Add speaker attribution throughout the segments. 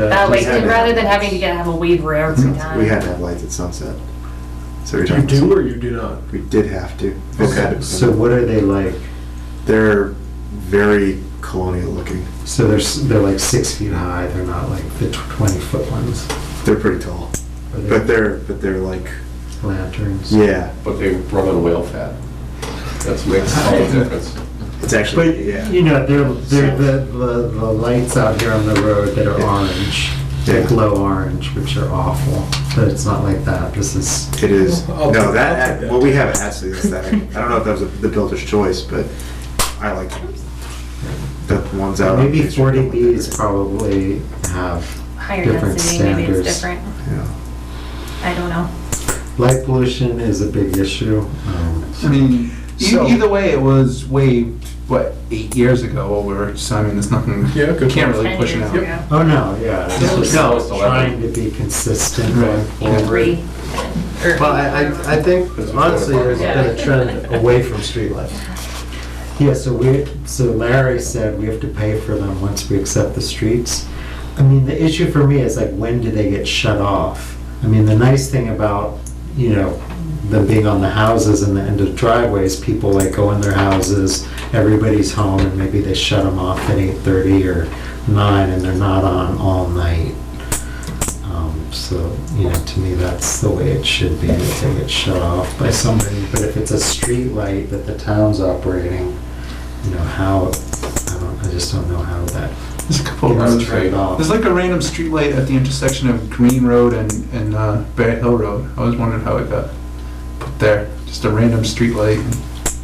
Speaker 1: Uh,
Speaker 2: That way,
Speaker 3: Uh, We had to-
Speaker 2: Uh, Oh, rather than having to get, have a waiver every time.
Speaker 3: We had to have lights at sunset. So we
Speaker 4: You do or you do not?
Speaker 3: We did have to.
Speaker 1: Okay, so what are they like?
Speaker 3: They're very colonial looking.
Speaker 1: So they're, s- they're like six feet high, they're not like the twenty foot ones.
Speaker 3: They're pretty tall,
Speaker 1: Are they
Speaker 3: but they're, but they're like,
Speaker 1: Lanterns.
Speaker 3: yeah,
Speaker 5: But they run on whale fat. That's makes all the difference.
Speaker 3: it's
Speaker 1: But,
Speaker 3: actually, yeah.
Speaker 1: you know, they're, they're the, the, the lights out here on the road that are
Speaker 3: Yeah.
Speaker 1: orange, they
Speaker 3: Yeah.
Speaker 1: glow orange, which are awful, but it's not like that, this is,
Speaker 3: It is,
Speaker 4: I'll-
Speaker 3: no,
Speaker 4: I'll
Speaker 3: that,
Speaker 4: take that.
Speaker 3: well, we have it actually aesthetic. I don't know if that was the builder's choice, but I like the ones out. on
Speaker 1: maybe
Speaker 3: Main Street.
Speaker 1: forty Bs probably have
Speaker 2: Higher
Speaker 1: different
Speaker 2: density, maybe it's
Speaker 1: standards.
Speaker 2: different.
Speaker 3: Yeah.
Speaker 2: I don't know.
Speaker 1: Light pollution is a big issue. Um,
Speaker 6: I mean, e-
Speaker 4: So-
Speaker 6: either way, it was waived, what, eight years ago, or whatever, so I mean, there's nothing,
Speaker 4: Yeah,
Speaker 6: you
Speaker 4: good
Speaker 6: can't
Speaker 4: point.
Speaker 6: really
Speaker 2: Ten
Speaker 6: push it
Speaker 2: years
Speaker 6: out.
Speaker 2: ago.
Speaker 1: Oh, no, yeah. it's
Speaker 5: No,
Speaker 1: just
Speaker 5: it's
Speaker 1: Trying to be consistent going
Speaker 6: Right.
Speaker 1: forward.
Speaker 2: Three. or-
Speaker 1: Well, I, I- I think honestly, there's been a trend away from streetlights. Yeah, so we, so Larry said we have to pay for them once we accept the streets. I mean, the issue for me is like, when do they get shut off? I mean, the nice thing about, you know, them being on the houses and the end of driveways, people like go in their houses, everybody's home, and maybe they shut them off at eight thirty or nine, and they're not on all night. Um, So, you know, to me, that's the way it should be, that they get shut off by somebody. But if it's a street light that the town's operating, you know, how, I don't, I just don't know how that
Speaker 6: There's a couple
Speaker 7: Oh,
Speaker 6: of
Speaker 1: gets
Speaker 6: roads.
Speaker 1: turned off.
Speaker 6: There's like a random streetlight at the intersection of Green Road and, and uh, Bear Hill Road. I always wondered how it got put there, just a random streetlight.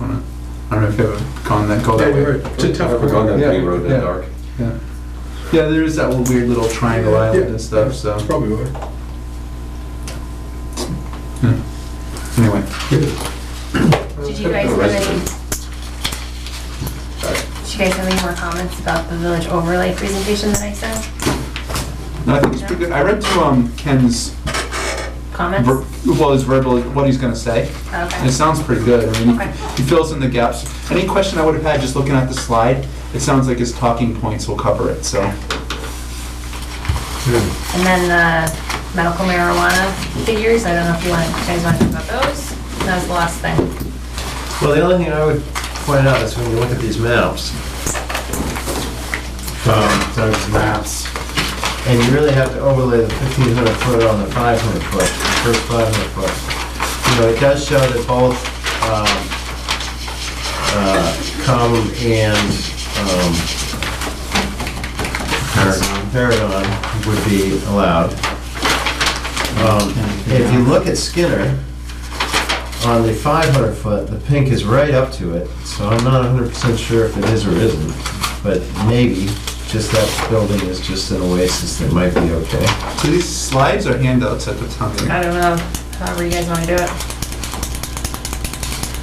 Speaker 6: I don't know. I don't know if you ever gone that, go
Speaker 4: Yeah,
Speaker 6: that
Speaker 4: we
Speaker 6: way.
Speaker 4: were, it's a tough
Speaker 5: Ever gone down
Speaker 4: corner.
Speaker 6: Yeah,
Speaker 5: Green Road in the
Speaker 6: yeah.
Speaker 5: dark?
Speaker 6: Yeah, yeah. there is that little weird little triangle island and stuff, so,
Speaker 4: That's probably why.
Speaker 6: anyway.
Speaker 2: Did you guys have any, did you guys have any more comments about the village overlay presentation that I sent?
Speaker 6: No, I think it's pretty good. I read through um, Ken's,
Speaker 2: Comments?
Speaker 6: ver- well, his verbal, what he's gonna say.
Speaker 2: Okay.
Speaker 6: It sounds pretty good. I mean,
Speaker 2: Okay.
Speaker 6: he fills in the gaps. Any question I would have had just looking at the slide, it sounds like his talking points will cover it, so.
Speaker 2: And then the medical marijuana figures, I don't know if you want, you guys want to talk about those? That was the last thing.
Speaker 7: Well, the only thing I would point out is when you look at these maps, um,
Speaker 1: Those maps.
Speaker 7: and you really have to overlay the 1,500 foot on the 500 foot, the first 500 foot. You know, it does show that both um, uh, come and um, Paragon- Paragon would be allowed. Um, If you look at Skinner, on the 500 foot, the pink is right up to it, so I'm not 100% sure if it is or isn't, but maybe, just that building is just an oasis that might be okay.
Speaker 6: So these slides are handouts at the time.
Speaker 2: I don't know, however you guys want to do it.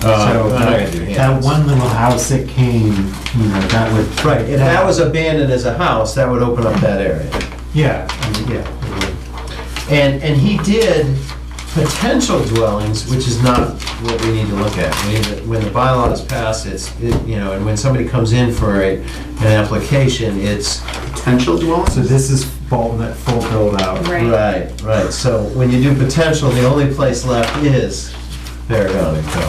Speaker 1: So
Speaker 7: Uh, I'm not gonna do
Speaker 1: Oh, that
Speaker 7: handouts.
Speaker 1: one little house that came, you know, that would.
Speaker 7: Right, if that was abandoned as a house, that would open up that area.
Speaker 1: Yeah, I mean, yeah. it would.
Speaker 7: And, and he did potential dwellings, which is not what we need to look at. We need to- When the bylaw is passed, it's, it- you know, and when somebody comes in for a, an application, it's,
Speaker 6: Potential dwellings?
Speaker 1: So this is Bolton, full build out.
Speaker 2: Right.
Speaker 7: right, right. So when you do potential, the only place left is Paragon and Co.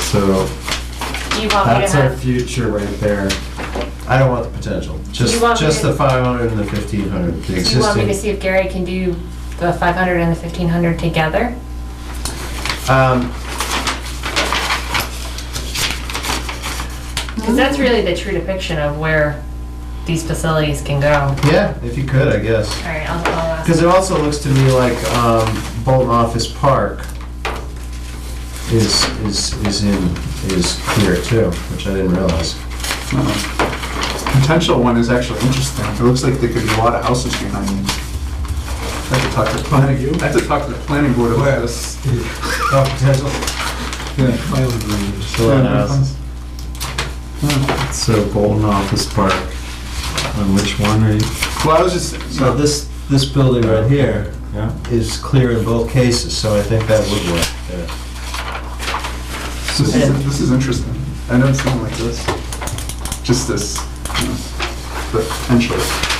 Speaker 7: So
Speaker 2: Do you want me to
Speaker 1: That's our
Speaker 2: have,
Speaker 1: future right there.
Speaker 7: I don't want the potential, just,
Speaker 2: You want me
Speaker 7: just
Speaker 2: to-
Speaker 7: the 500 and the 1500,
Speaker 2: do you want me
Speaker 7: the
Speaker 2: to
Speaker 7: existing.
Speaker 2: see if Gary can do the 500 and the 1500 together?
Speaker 7: Um,
Speaker 2: Because that's really the true depiction of where these facilities can go.
Speaker 7: Yeah, if you could, I guess.
Speaker 2: All right, I'll, I'll ask.
Speaker 7: Because it also looks to me like um, Bolton Office Park is, is, is in, is clear too, which I didn't realize.
Speaker 6: Potential one is actually interesting. It looks like there could be a lot of houses behind me. I have to talk to the planning, I have to talk to the planning board about this.
Speaker 7: Oh, potential?
Speaker 6: Yeah.
Speaker 1: So Bolton Office Park, on which one are you?
Speaker 6: Well, I was just,
Speaker 7: So this, this building right here
Speaker 1: Yeah.
Speaker 7: is clear in both cases, so I think that would work. yeah.
Speaker 6: this is, this is interesting. I never seen it like this. Just this, you know, potential.